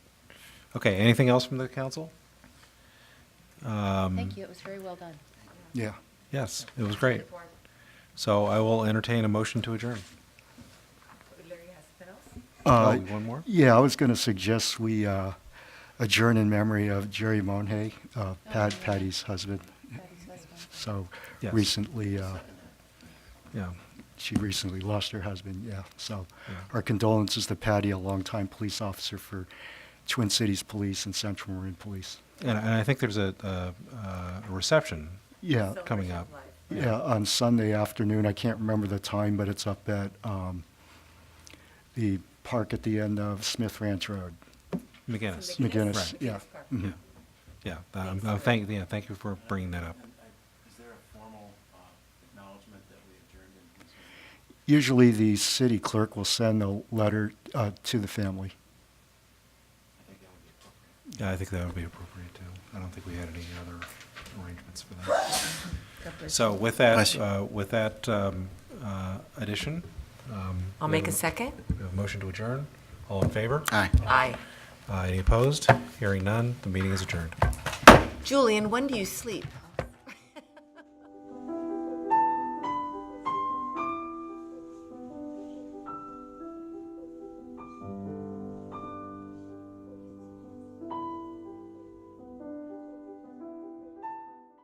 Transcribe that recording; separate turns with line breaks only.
Okay, anything else from the council?
Thank you, it was very well done.
Yeah.
Yes, it was great. So I will entertain a motion to adjourn. Oh,
Uh,
one more?
Yeah, I was going to suggest we uh, adjourn in memory of Jerry Monhey, uh, Pat Patty's husband.
Patty's husband.
So
Yes.
recently, uh,
Yeah,
she recently lost her husband, yeah. So
Yeah.
our condolences to Patty, a longtime police officer for Twin Cities Police and Central Marin Police.
and, and I think there's a, a, a reception
Yeah,
Uh, coming up.
yeah, on Sunday afternoon, I can't remember the time, but it's up at um, the park at the end of Smith Ranch Road,
McGinnis.
McGinnis,
Right.
yeah. mhm.
Yeah, Mm-hmm. yeah, um, uh, thank, yeah, thank you for bringing that up.
Is there a formal uh, acknowledgement that we adjourned in concern?
Usually, the city clerk will send a letter uh, to the family.
Yeah, I think that would be appropriate too. I don't think we had any other arrangements for that. So with that,
Bless you.
uh, with that, um, uh, addition, um.
I'll
we
make a
have
second.
we have a Motion to adjourn. All in favor?
Aye.
Aye.
Uh, Any opposed? Hearing none, the meeting is adjourned.
Julian, when do you sleep?